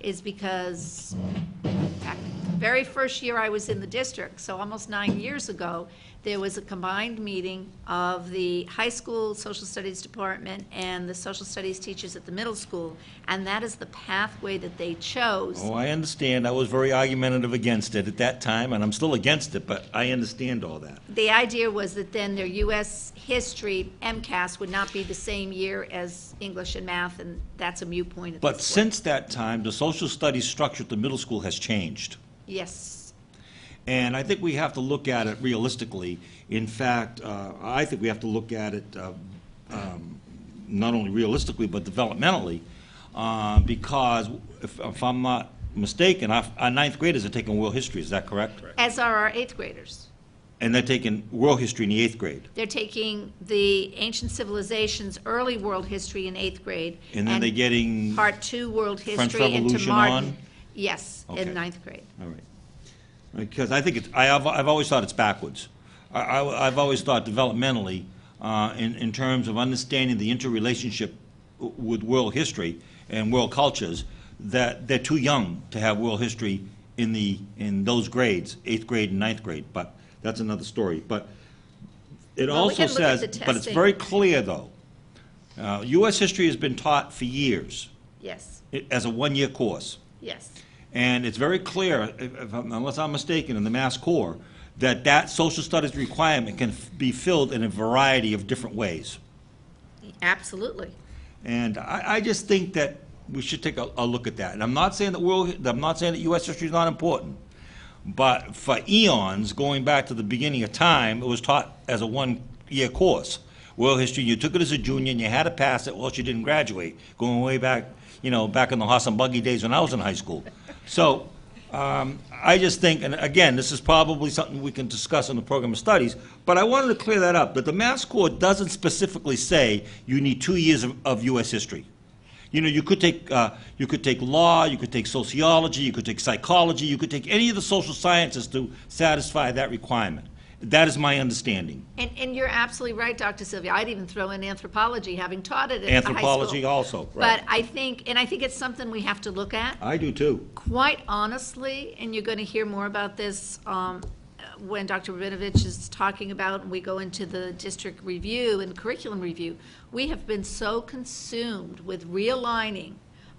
is because back the very first year I was in the district, so almost nine years ago, there was a combined meeting of the high school social studies department and the social studies teachers at the middle school, and that is the pathway that they chose. Oh, I understand. I was very argumentative against it at that time, and I'm still against it, but I understand all that. The idea was that then their US history MCAS would not be the same year as English and math, and that's a mute point at But this point. since that time, the social studies structure at the middle school has changed. Yes, And I think we have to look at it realistically. In fact, uh, I think we have to look at it uh, um, not only realistically, but developmentally, uh, because if if I'm not mistaken, our our ninth graders are taking world history, is that correct? as are our eighth graders. And they're taking world history in the eighth grade. They're taking the ancient civilizations, early world history in eighth grade. And then they're getting, all Part two, world French history into Revolution Martin. on? Yes, in Okay. ninth grade. right. Because I think it's, I have, I've always thought it's backwards. I, I- I've always thought developmentally, uh, in, in terms of understanding the interrelationship w- with world history and world cultures, that they're too young to have world history in the, in those grades, eighth grade and ninth grade, but that's another story. But it Well, we also can look at says, the but it's testing. very clear, though. Uh, US history has been taught for years, Yes, i- as a one-year course. yes. And it's very clear, if- if I'm- unless I'm mistaken, in the Mass Core, that that social studies requirement can f- be filled in a variety of different ways. Absolutely. And I, I just think that we should take a, a look at that. And I'm not saying that world, I'm not saying that U.S. history is not important, but for eons, going back to the beginning of time, it was taught as a one-year course. World history, you took it as a junior and you had to pass it, or else you didn't graduate. Going way back, you know, back in the horse and buggy days when I was in high school. So, um, I just think, and again, this is probably something we can discuss in the program of studies, but I wanted to clear that up, that the Mass Core doesn't specifically say you need two years of, of US history. You know, you could take, uh, you could take law, you could take sociology, you could take psychology, you could take any of the social sciences to satisfy that requirement. That is my understanding. And, and you're absolutely right, Dr. Sylvia. I'd even throw in anthropology, having taught it at high school. Anthropology also, But right. I think, and I think it's something we have to look at. I do too. Quite honestly, and you're going to hear more about this um, when Dr. Rabinovich is talking about, and we go into the district review and curriculum review, we have been so consumed with realigning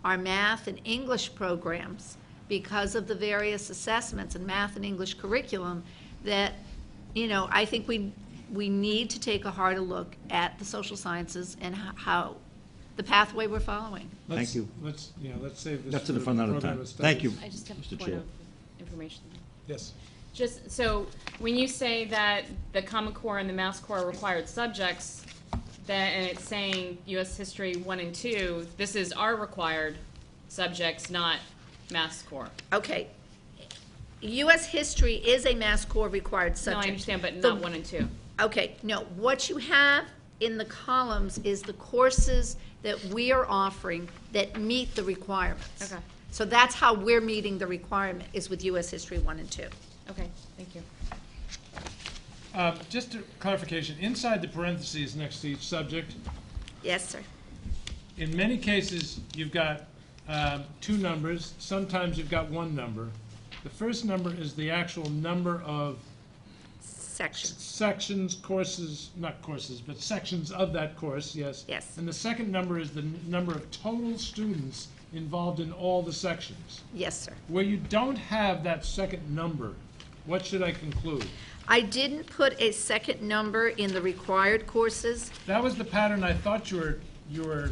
our math and English programs because of the various assessments and math and English curriculum that, you know, I think we, we need to take a harder look at the social sciences and ho- how, the pathway we're following. Thank Let's- you. Let's, yeah, let's save this That's for to the the fun other program time. of Thank you. studies. I just have Mr. a point Chair. of information. Yes. Just, so, when you say that the Common Core and the Mass Core are required subjects, that, and it's saying US History one and two, this is our required subjects, not Mass Core. Okay. U.S. history is a Mass Core required No, subject. I understand, but The- not one and two. Okay, no, what you have in the columns is the courses that we are offering that meet the requirements. Okay. So that's how we're meeting the requirement, is with U.S. History 1 and 2. Okay, thank you. Uh, Just a clarification, inside the parentheses next to each subject, Yes, sir. in many cases, you've got um, two numbers, sometimes you've got one number. The first number is the actual number of Section. sections, courses, not courses, but sections of that course, yes? Yes. And the second number is the n- number of total students involved in all the sections. Yes, sir. Where you don't have that second number, what should I conclude? I didn't put a second number in the required courses. That was the pattern I thought you were, you were,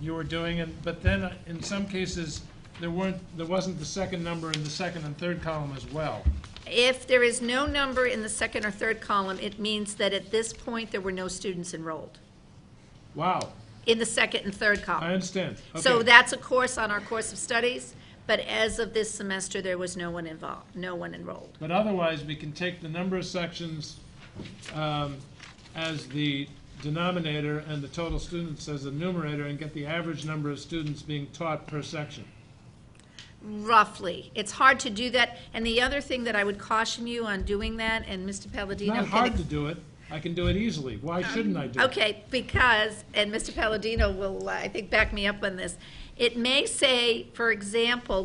you were doing, and, but then uh, in some cases, there weren't, there wasn't the second number in the second and third column as well. If there is no number in the second or third column, it means that at this point, there were no students enrolled, Wow, in the second and third column. I understand. So Okay. that's a course on our course of studies, but as of this semester, there was no one involved, no one enrolled. But otherwise, we can take the number of sections um, as the denominator and the total students as the numerator and get the average number of students being taught per section. Roughly. It's hard to do that. And the other thing that I would caution you on doing that, and Mr. It's Palladino. not can- hard to do it. I can do it easily. Why shouldn't I do it? Okay, because, and Mr. Palladino will, uh, I think, back me up on this, It may say, for example,